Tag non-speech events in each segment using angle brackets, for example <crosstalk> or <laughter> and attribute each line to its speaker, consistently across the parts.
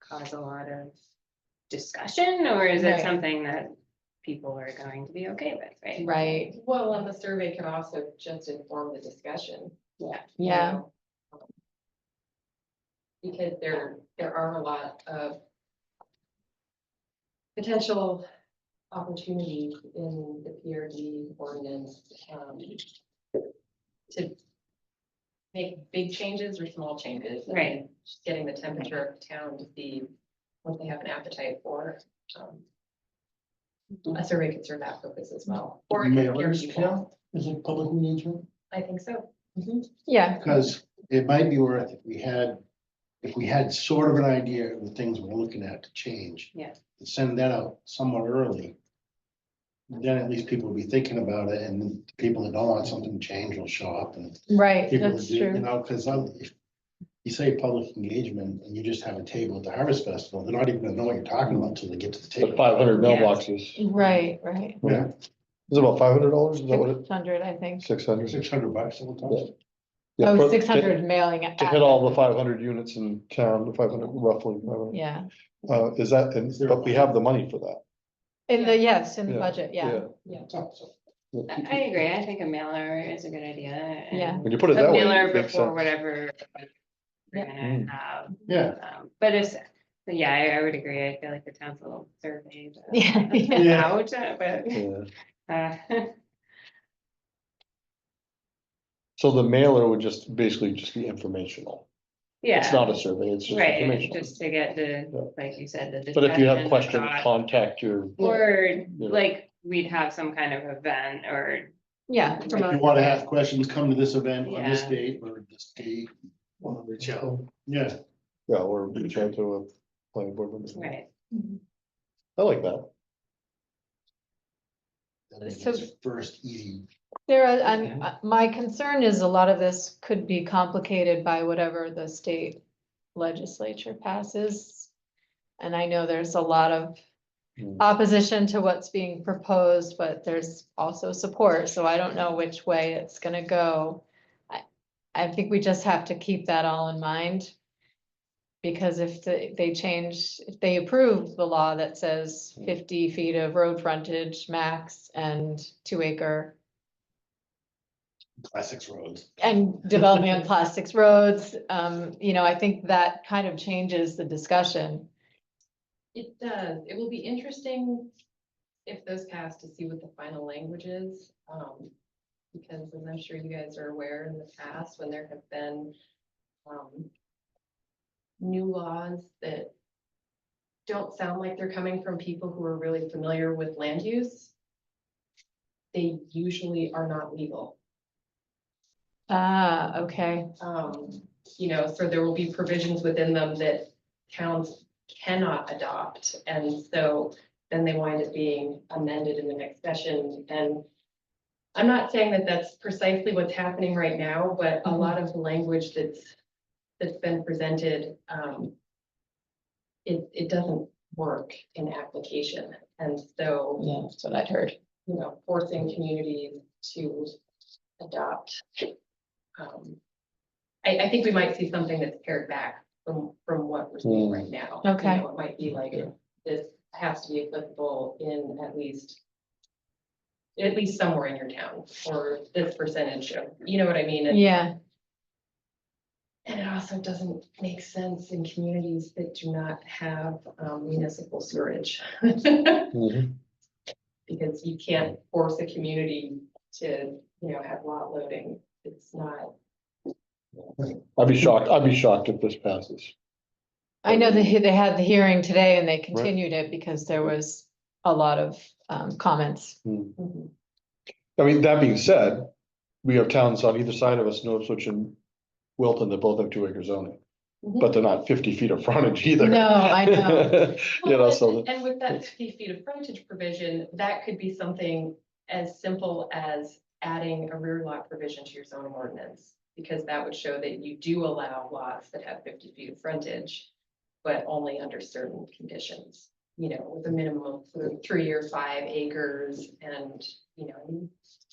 Speaker 1: cause a lot of discussion, or is it
Speaker 2: Right.
Speaker 1: something that people are going to be okay with, right?
Speaker 2: Right,
Speaker 3: Well, and the survey can also just inform the discussion. you
Speaker 2: yeah,
Speaker 3: know, um, Because there, there are a lot of potential opportunities in the PRD ordinance, um, to make big changes or small changes. and
Speaker 1: Right.
Speaker 3: Just getting the temperature of the town to see what they have an appetite for. um, A survey could serve that purpose as well. Or it could hear
Speaker 4: Mailers
Speaker 3: people.
Speaker 4: count as a public meeting too?
Speaker 3: I think so.
Speaker 2: yeah,
Speaker 4: Because it might be worth, if we had, if we had sort of an idea of the things we're looking at to change.
Speaker 1: Yeah.
Speaker 4: to Send that out somewhat early. Then at least people will be thinking about it and the people that don't want something to change will show up and
Speaker 2: right,
Speaker 4: people will
Speaker 2: that's
Speaker 4: do, you
Speaker 2: true.
Speaker 4: know, because I'm. if You say public engagement and you just have a table at the Harvest Festival, they're not even gonna know what you're talking about till they get to the
Speaker 5: The
Speaker 4: table.
Speaker 5: five hundred
Speaker 1: Yeah.
Speaker 5: mailboxes,
Speaker 2: Right, right.
Speaker 4: Yeah,
Speaker 5: is it about five hundred dollars, is that what it,
Speaker 2: Six hundred, I think.
Speaker 5: six
Speaker 1: Oh,
Speaker 5: hundred?
Speaker 4: six hundred bucks at times.
Speaker 2: Oh, six hundred mailing.
Speaker 5: To hit all the five hundred units in town, the five hundred roughly, 500.
Speaker 2: Yeah,
Speaker 5: uh, is that, and, but we have the money for that.
Speaker 2: in the, yes, in the
Speaker 5: Yeah,
Speaker 2: budget, yeah,
Speaker 1: I I agree, I think a mailer is a good idea. and
Speaker 2: Yeah.
Speaker 5: When you put it
Speaker 1: A
Speaker 5: that way.
Speaker 1: mailer
Speaker 5: it makes
Speaker 1: before
Speaker 5: sense. Mm.
Speaker 1: whatever. We're
Speaker 2: Yeah.
Speaker 1: gonna have,
Speaker 4: Yeah,
Speaker 1: um, but it's, but yeah, I, I would agree, I feel like the town's a little surveyed. uh,
Speaker 2: Yeah, <laughs> <laughs> yeah.
Speaker 4: Yeah.
Speaker 1: Out, uh, but.
Speaker 5: Yeah.
Speaker 1: Uh, <laughs>
Speaker 5: So the mailer would just basically just be informational. It's
Speaker 1: Yeah,
Speaker 5: not a survey, it's
Speaker 1: <laughs>
Speaker 5: just
Speaker 1: right,
Speaker 5: informational.
Speaker 1: just to get
Speaker 5: Yeah.
Speaker 1: the, like you said, the.
Speaker 5: But if you
Speaker 1: discussion,
Speaker 5: have
Speaker 1: the
Speaker 5: questions,
Speaker 1: thought,
Speaker 5: contact your.
Speaker 1: Or
Speaker 5: Yeah.
Speaker 1: like, we'd have some kind of event or,
Speaker 2: yeah.
Speaker 1: If
Speaker 4: If
Speaker 2: promote
Speaker 4: you wanna ask questions, come to this event on this
Speaker 1: Yeah.
Speaker 4: date or this date. reach out. Yeah,
Speaker 5: Yeah, or reach out to a planning board member.
Speaker 1: right,
Speaker 5: I like that.
Speaker 4: that is
Speaker 2: So-
Speaker 4: the first easy.
Speaker 2: Sarah, I'm, uh, my concern is a lot of this could be complicated by whatever the state legislature passes. And I know there's a lot of
Speaker 5: Hmm.
Speaker 2: opposition to what's being proposed, but there's also support, so I don't know which way it's gonna go. I, I think we just have to keep that all in mind. Because if they, they change, if they approve the law that says fifty feet of road frontage max and two acre
Speaker 4: Classics roads.
Speaker 2: and development on plastics roads, um, you know, I think that kind of changes the discussion.
Speaker 3: It does. It will be interesting if those pass to see what the final language is. um, Because as I'm sure you guys are aware in the past, when there have been um, new laws that don't sound like they're coming from people who are really familiar with land use, they usually are not legal.
Speaker 2: Ah, okay,
Speaker 3: Um, you know, so there will be provisions within them that towns cannot adopt. And so then they wind up being amended in the next session. And I'm not saying that that's precisely what's happening right now, but a lot of the language that's, that's been presented, um, it, it doesn't work in application. And so
Speaker 2: yeah, that's what I'd heard.
Speaker 3: you know, forcing communities to adopt. um, I, I think we might see something that's pared back from, from what we're seeing right now. You
Speaker 2: Okay.
Speaker 3: know, It might be like, this has to be applicable in at least, at least somewhere in your town, or this percentage of, you know what I mean? And-
Speaker 2: Yeah,
Speaker 3: and it also doesn't make sense in communities that do not have um, municipal sewerage. <laughs>
Speaker 5: Mhm.
Speaker 3: Because you can't force a community to, you know, have lot loading. It's not.
Speaker 5: I'd be shocked, I'd be shocked if this passes.
Speaker 2: I know they, they had the hearing today and they continued it because there was a lot of, um, comments.
Speaker 5: I mean, that being said, we have towns on either side of us, Northwich and Wilton, that both have two acre zoning, but they're not fifty feet of frontage either.
Speaker 2: No, I know,
Speaker 5: <laughs> You know, so,
Speaker 2: <laughs>
Speaker 3: And with that fifty feet of frontage provision, that could be something as simple as adding a rear lot provision to your zoning ordinance. Because that would show that you do allow lots that have fifty feet of frontage, but only under certain conditions. You know, with a minimum of th- three or five acres and, you know,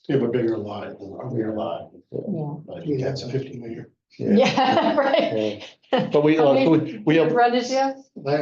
Speaker 4: You have a bigger lot, a bigger lot, but you got some fifty meter.
Speaker 2: yeah, <laughs> yeah, right.
Speaker 5: yeah. but we, uh, we, we have
Speaker 2: Run it, yeah?